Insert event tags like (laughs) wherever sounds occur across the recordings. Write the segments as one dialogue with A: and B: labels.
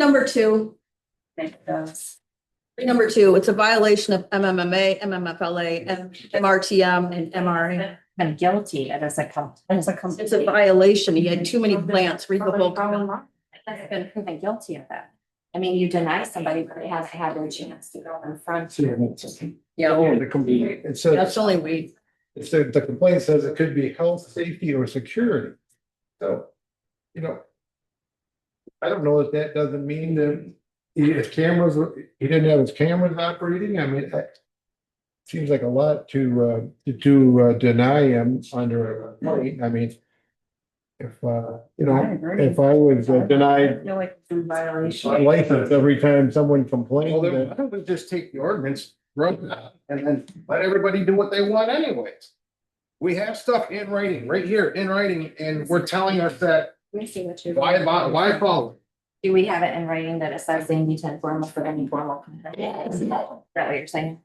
A: number two,
B: Make those.
A: number two, it's a violation of MMMA, MMFLA, and MRTM and MRA.
B: I'm guilty and as a com, as a com.
A: It's a violation. He had too many plants, read the whole.
B: I've been proven guilty of that. I mean, you deny somebody, but they haven't had their chance to go in front.
C: See, and it's- Oh, the complaint, it says,
A: That's only weed.
C: it said, the complaint says it could be health, safety or security. So, you know. I don't know if that doesn't mean that he- his cameras, were- he didn't have his cameras operating. I mean, that. Seems like a lot to, uh, to- to uh, deny him under a complaint. I mean. If, uh, you know, if I was uh, denied
B: feel like it's in
C: my
B: violation.
C: license every time someone complained.
D: Well, then
C: that-
D: why don't we just take the ordinance, run it out, and then let everybody do what they want anyways? We have stuff in writing, right here, in writing, and we're telling us that,
B: Let me see what you.
D: why, why, why follow?
B: Do we have it in writing that it says they need to inform us of any formal? complaint? Is that what you're saying?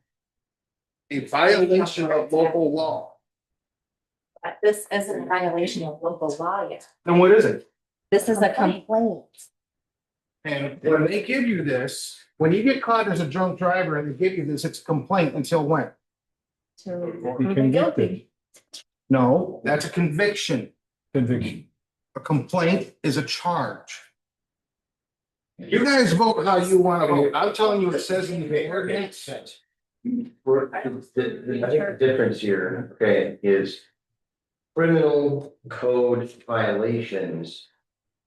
D: A violation of local law.
B: But This isn't a violation of local law yet.
D: Then what is it?
B: This is a complaint.
D: And when they give you this, when you get caught as a drunk driver and they give you this, it's a complaint until when?
B: to
C: Be convicted,
D: No, that's a conviction.
C: conviction.
D: A complaint is a charge. You guys vote how you wanna vote. I'm telling you, it says in the ordinance.
E: We're, the, the, I think the difference here, okay, is. Criminal code violations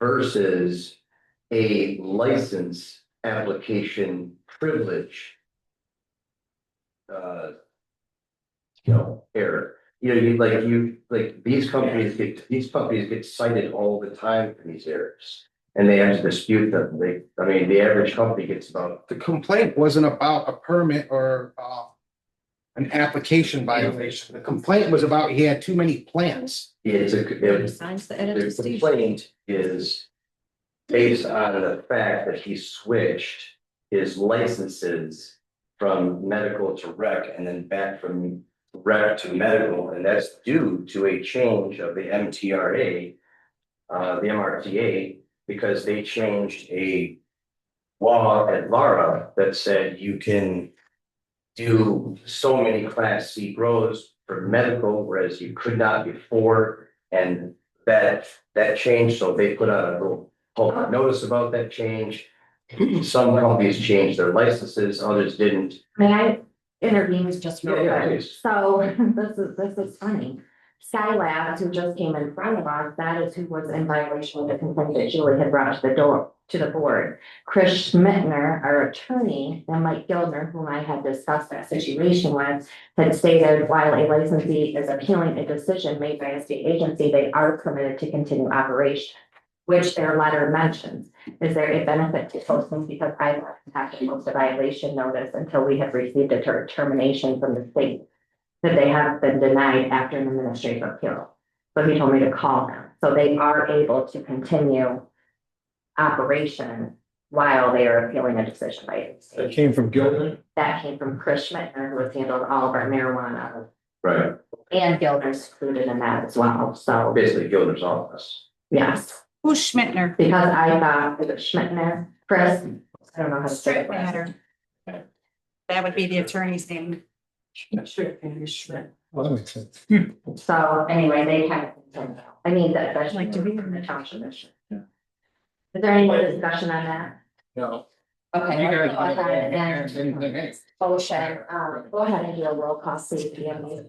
E: versus a license application privilege. Uh. You know, error, you know, you like you, like these companies get, these companies get cited all the time for these errors. And they have to dispute them, they, I mean, the average company gets about
D: the complaint wasn't about a permit or uh. An application violation. The complaint was about he had too many plants.
E: It's a, it's
A: Signs the
E: The
A: NFTC.
E: complaint is based on the fact that he switched his licenses from medical to rec and then back from rec to medical, and that's due to a change of the MTRA, uh, the MRTA, because they changed a law at Lara that said you can do so many class C grows for medical, whereas you could not before, and that, that change, so they put out a little public notice about that change. Some companies changed their licenses, others didn't.
B: May I intervene just real
E: Yeah, yeah,
B: quick?
E: please.
B: So (laughs) this is, this is funny. Sky Labs, who just came in front of us, that is who was in violation of the complaint that Julie had brought to the door, to the board. Chris Schmittner, our attorney, and Mike Gildner, whom I had discussed that situation with, had stated while a licensee is appealing a decision made by a state agency, they are permitted to continue operation, which their letter mentions. Is there a benefit to posting because I have not post a violation notice until we have received a ter- termination from the state? That they have been denied after an administrative appeal. So he told me to call them, so they are able to continue. Operation while they are appealing a decision by the
C: That
B: state.
C: came from Gilman.
B: That came from Chris Schmittner, who has handled all of our marijuana
E: Right.
B: and Gildner's included in that as well, so,
E: Basically, Gilder's office.
B: yes.
F: Who's Schmittner?
B: Because I thought, was it Schmittner, Chris, I don't know how to say it.
F: That would be the attorney's name.
C: Well, that makes sense.
B: So anyway, they kind of, I mean, that, that's
F: Like
B: like
F: to
B: to
F: be
B: be
F: in the
B: the township mission. Is there any more discussion on that?
D: No.
B: Okay.
D: You
B: let's
D: guys
B: go
D: don't
B: ahead
D: have anything,
B: and-
D: hey.
B: Motion, um, go ahead and do a roll call, see if you have any.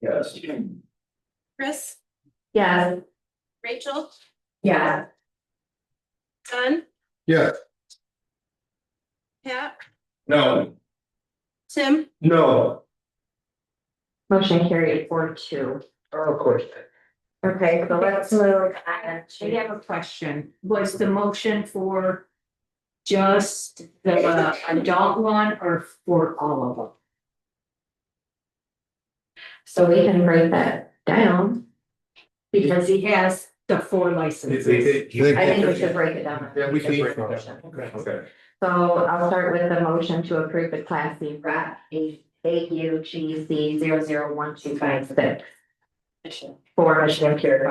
E: Yes.
F: Chris,
B: Yes,
F: Rachel,
B: yes,
F: Don,
C: Yeah,
F: Pat,
E: No.
F: Tim,
E: No.
B: motion carried four two.
E: Oh, Of course.
B: Okay, so let's move on
G: I
B: to.
G: have a question. Was the motion for just the adult one or for all of them?
B: So we can break that down. Because
G: Because he has the four licenses.
B: I think we should break it down.
D: Yeah, we should break it down.
B: Motion.
E: Okay.
B: So I'll start with the motion to approve the Class C RAP A U G C zero zero one two five six. for Michigan Cure.